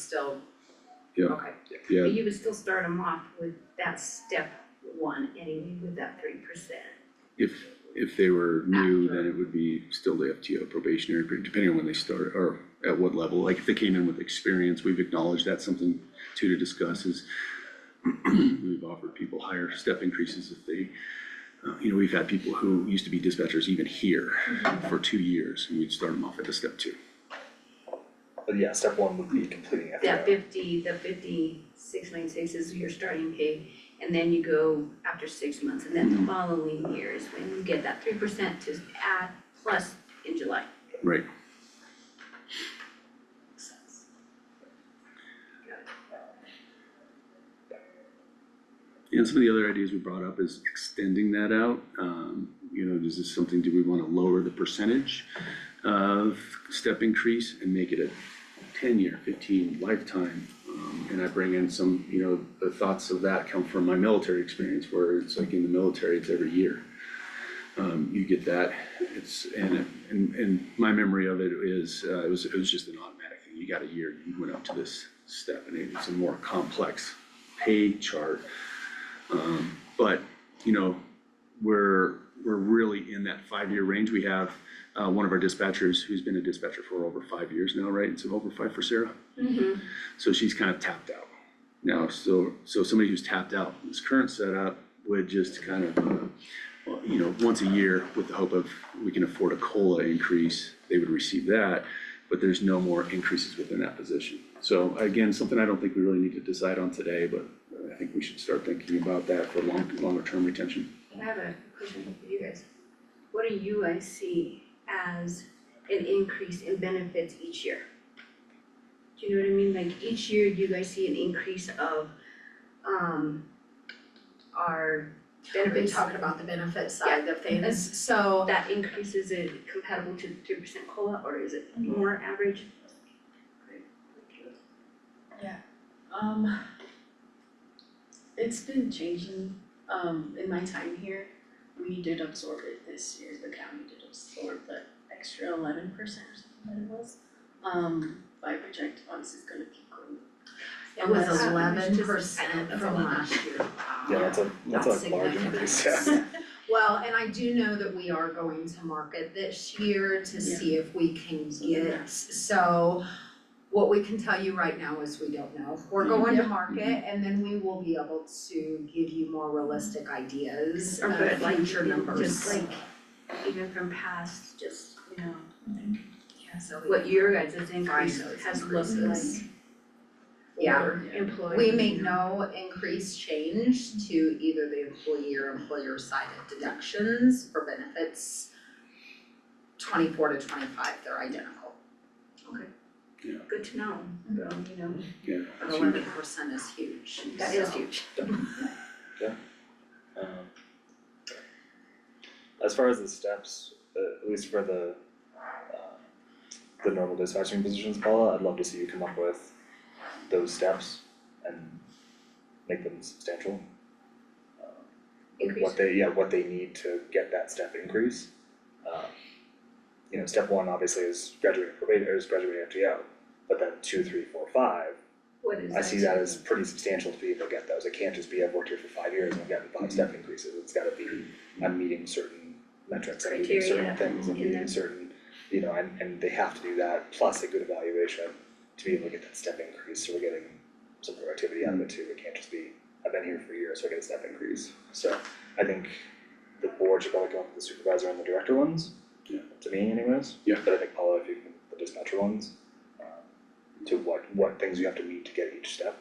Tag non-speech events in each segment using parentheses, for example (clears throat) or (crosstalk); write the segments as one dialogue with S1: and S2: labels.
S1: still.
S2: Yeah.
S1: Okay,
S2: yeah,
S1: but you would still start them off with that step one anyway, with that three percent.
S2: if, if they were new, then it would be still the FTO probationary period, depending on when they start, or at what level, like if they came in with experience, we've acknowledged that's something too to discuss is (clears throat) we've offered people higher step increases if they, uh, you know, we've had people who used to be dispatchers even here
S1: Mm-hmm.
S2: for two years, and we'd start them off at the step two.
S3: But yeah, step one would be completing FAO.
S1: That fifty, the fifty, six nine six is your starting pay, and then you go after six months, and then the following year is when you get that three percent to add plus in July.
S2: Right.
S1: Makes sense.
S2: And some of the other ideas we brought up is extending that out. Um, you know, is this something, do we wanna lower the percentage of step increase and make it a ten-year, fifteen lifetime? Um, and I bring in some, you know, the thoughts of that come from my military experience where it's like in the military, it's every year. Um, you get that, it's, and, and, and my memory of it is, uh, it was, it was just an automatic thing. You got a year, you went up to this step and it's a more complex pay chart. Um, but, you know, we're, we're really in that five-year range. We have, uh, one of our dispatchers who's been a dispatcher for over five years now, right? It's over five for Sarah.
S1: Mhm.
S2: So she's kind of tapped out now. So, so somebody who's tapped out, in this current setup would just kind of, uh, well, you know, once a year with the hope of we can afford a COLA increase, they would receive that. But there's no more increases within that position. So again, something I don't think we really need to decide on today, but I think we should start thinking about that for long, longer term retention.
S1: I have a question for you guys. What do you guys see as an increase in benefits each year? Do you know what I mean? Like each year, do you guys see an increase of um our
S4: We've been
S1: benefits?
S4: talking about the benefit side of things, Mm-hmm. so
S1: That increase, is it compatible to three percent COLA or is it
S4: Mm-hmm.
S1: more average?
S5: Um, it's been changing, um, in my time here, we did absorb it this year, the county did absorb the extra eleven percent or something that it was. Um, but I project obviously it's gonna keep going.
S4: it was
S5: Unless-
S4: eleven
S1: I know,
S4: percent
S1: that's a
S4: from
S1: lot.
S4: last year.
S3: Yeah, that's a, that's
S4: That's
S3: a large
S4: significant.
S3: increase, (laughs) yeah.
S4: Well, and I do know that we are going to market this year to
S5: Yeah.
S4: see if we can get, so what we can tell you right now is we don't know. We're going to market and then we will be able to give you more realistic ideas
S1: Or
S4: of
S1: but like
S4: future
S1: even
S4: numbers.
S1: Uh, Just like even from past, just, you know,
S4: Yeah, so
S1: what your guys' increase
S4: those
S1: has looked
S4: increases.
S1: like
S4: Yeah.
S1: for employees.
S4: We make
S1: you know?
S4: no increased change to either the employee or employer side of deductions for benefits. Twenty-four to twenty-five, they're identical.
S1: Good to know,
S5: Mhm.
S1: you know,
S2: Yeah.
S4: But eleven percent is huge,
S1: that is
S4: so-
S1: huge.
S3: Um, As far as the steps, uh, at least for the, um, the normal dispatching positions, Paula, I'd love to see you come up with those steps and make them substantial. Um,
S1: Increase.
S3: What they, yeah, what they need to get that step increase. Um, You know, step one obviously is graduating probation, or is graduating FTO, but then two, three, four, five,
S1: What is
S3: I see that as pretty substantial to be able to get those, it can't just be I've worked here for five years and I've gotten five step increases, it's gotta be, I'm meeting certain metrics, I'm meeting
S1: Criteria
S3: certain things, I'm
S1: in there.
S3: meeting certain, you know, and and they have to do that, plus a good evaluation to be able to get that step increase, so we're getting some productivity out of it too, it can't just be, I've been here for years, so I get a step increase, so I think the board should probably go with the supervisor and the director ones,
S2: Yeah.
S3: to me anyways.
S2: Yeah.
S3: But I think Paula, if you can, the dispatcher ones, um, to what what things you have to meet to get each step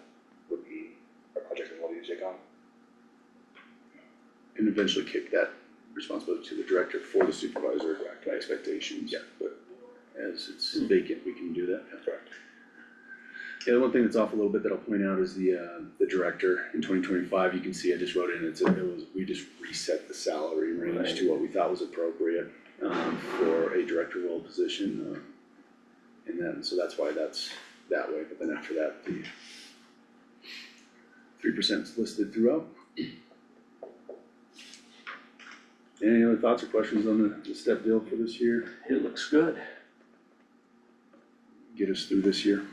S3: would be a project that we'll be take on.
S2: And eventually kick that responsibility to the director for the supervisor, correct, by expectations. Yeah. Hmm. But as it's vacant, we can do that.
S3: Correct.
S2: Yeah, the one thing that's off a little bit that I'll point out is the, uh, the director in twenty twenty-five, you can see I just wrote in, it's, it was, we just reset the salary range to what we thought was appropriate, um, for a director role position, um, and then, so that's why that's that way, but then after that, the three percent's listed throughout. Any other thoughts or questions on the, the step deal for this year? It looks good. Get us through this year.